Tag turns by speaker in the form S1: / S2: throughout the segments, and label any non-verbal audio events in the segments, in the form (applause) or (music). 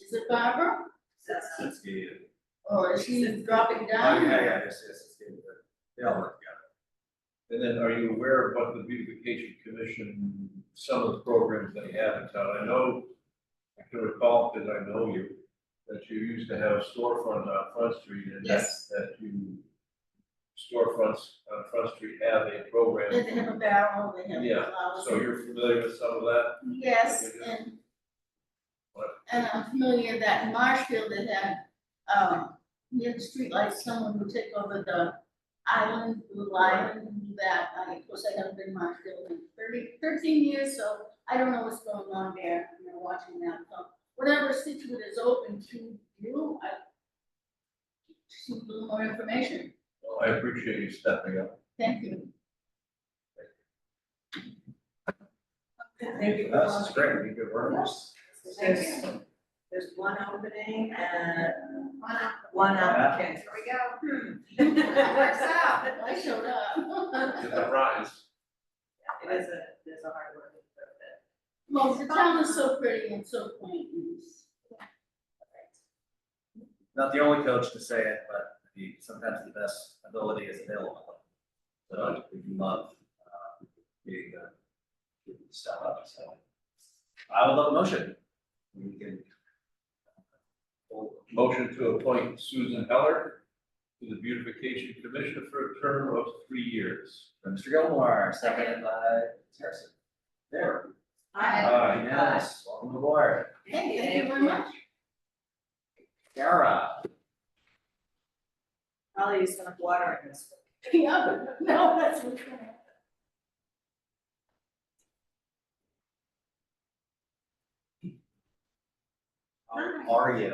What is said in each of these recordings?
S1: Is it Barbara?
S2: Let's get it.
S1: Or is she dropping
S2: Oh,
S1: down?
S2: yeah, yeah, yes, yes, let's get it, they all work together.
S3: And then are you aware of what the beautification commission, some of the programs they have in town? I know, I can recall, because I know you, that you used to have storefront on Front Street and that,
S1: Yes.
S3: that you storefronts on Front Street have a program.
S1: They have a barrel, they have
S3: Yeah,
S1: flowers.
S3: So you're familiar with some of that?
S1: Yes, and.
S3: What?
S1: And I'm familiar that in Marshfield they had, um, near the streetlights, someone would take over the island, Blue Island, and do that. I, of course, I haven't been in Marshfield in 30 13 years, so I don't know what's going on there, you know, watching that. So Whatever Situate is open to you, I just need a little more information.
S3: Well, I appreciate you stepping up.
S4: (laughs)
S1: Thank you.
S5: Thank you. for
S2: That's
S5: calling.
S2: great, we could work.
S5: There's, there's one opening and one applicant. Here we go. Hmm. Works out.
S1: I showed up.
S3: To the rise.
S5: It is a, there's a hard work. but
S1: Well, the town is so pretty and so quaint, and it's-
S2: Not the only coach to say it, but the, sometimes the best ability is available. So we do love, uh, being, uh, giving stuff up, so. I would love a motion. We can.
S3: Motion to appoint Susan Heller to the beautification commission for a term of three years.
S2: Mr. Gilmore, seconded by Ms. Harrison. There.
S5: I-
S3: Aye.
S2: Yes, welcome aboard.
S1: Hey, thank you very much.
S2: Sarah.
S5: Probably used enough water in this.
S1: Yeah, no, that's what's going on.
S2: How are you?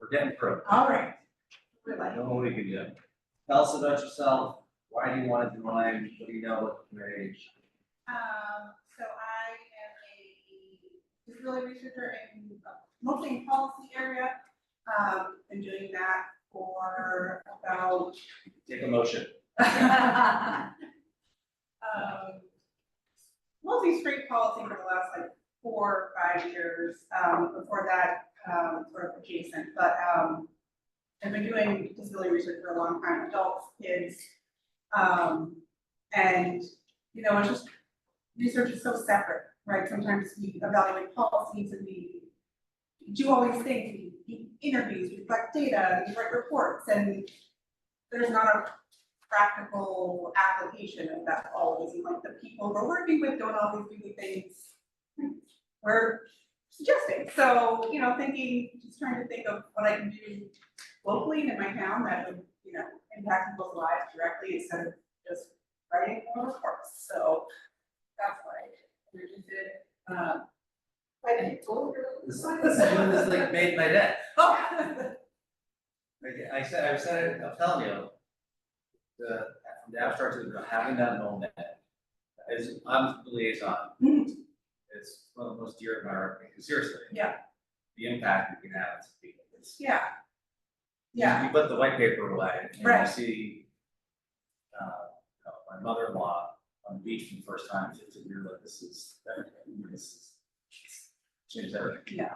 S2: We're getting through.
S5: All right. We're
S2: I
S5: like,
S2: know what we can do. Tell us about yourself. Why do you want to join? What do you know about the marriage?
S6: Um, so I am a disability researcher in uh, mostly in policy area. Um, been doing that for about,
S2: Take a motion.
S6: um, mostly straight policy for the last like four, five years. Um, before that, um, sort of adjacent, but, um, I've been doing disability research for a long time, adults, kids. Um, and, you know, it's just research is so separate, right? Sometimes we evaluate policies and we do all these things, we do interviews, we collect data, we write reports, and there's not a practical application of that always, and like the people we're working with don't always do the things we're suggesting. So, you know, thinking, just trying to think of what I can do locally and in my town that would, you know, impact people's lives directly instead of just writing more reports, so that's what I did, and I just did, uh. I did
S2: This, this this like made my day.
S6: (laughs) Oh, (laughs)
S2: Like, I said, I said, it, I'm telling you. The, from the abstract to the, real, having that moment is, I'm the liaison.
S6: Hmm.
S2: It's one of the most dear admirer, seriously.
S6: Yeah.
S2: The impact you can have as people. It's-
S6: yeah. Yeah,
S2: You put the white paper away and you
S6: Right.
S2: see. Uh, you know, my mother-in-law on the beach for the first time, it's, you're like, this is, this is. Changed everything.
S6: Yeah.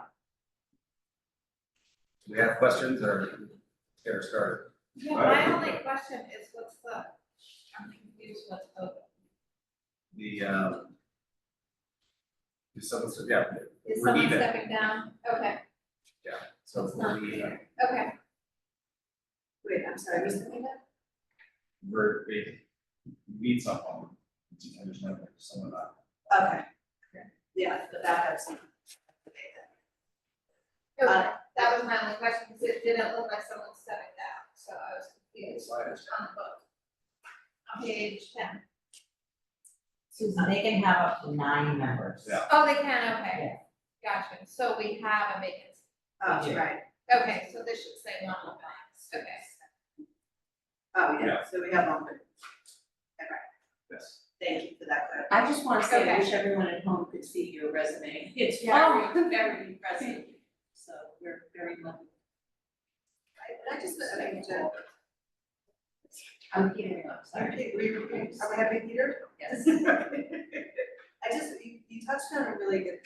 S2: Do we have questions or, Sarah started?
S7: Yeah, my only question is what's the, I'm confused what's open.
S2: the, um. Is someone, yeah,
S7: Is
S2: We're
S7: someone
S2: even.
S7: stepping down? Okay,
S2: so
S7: It's
S2: we're,
S7: not
S2: leaving.
S7: okay. Wait, I'm sorry, was something that?
S2: we're, we need someone. I just know there's someone not.
S5: Okay. Yeah, the backup's. not-
S7: Okay, that was my only question, because it didn't look like someone stepping down, so I was confused
S2: Slide is-
S7: on the book. On page ten.
S4: Susan, they can have up to nine members.
S2: Yeah.
S7: Oh, they can, okay. Gotcha, so we have a vacancy.
S5: Oh, right.
S7: Okay, so this should say one of us, okay.
S5: Oh, yeah,
S2: Yeah.
S5: so we have one.
S2: Yes.
S5: Thank you for that clarification.
S4: I just want to say, I
S7: Okay.
S4: wish everyone at home could see your resume. It's
S7: Yeah.
S4: very, very impressive. So we're very lucky.
S5: Right, I just, I mean, to-
S4: I'm giving up, sorry.
S5: Okay, we, we- are we having Peter?
S4: Yes.
S5: I just, you, you touched on a really good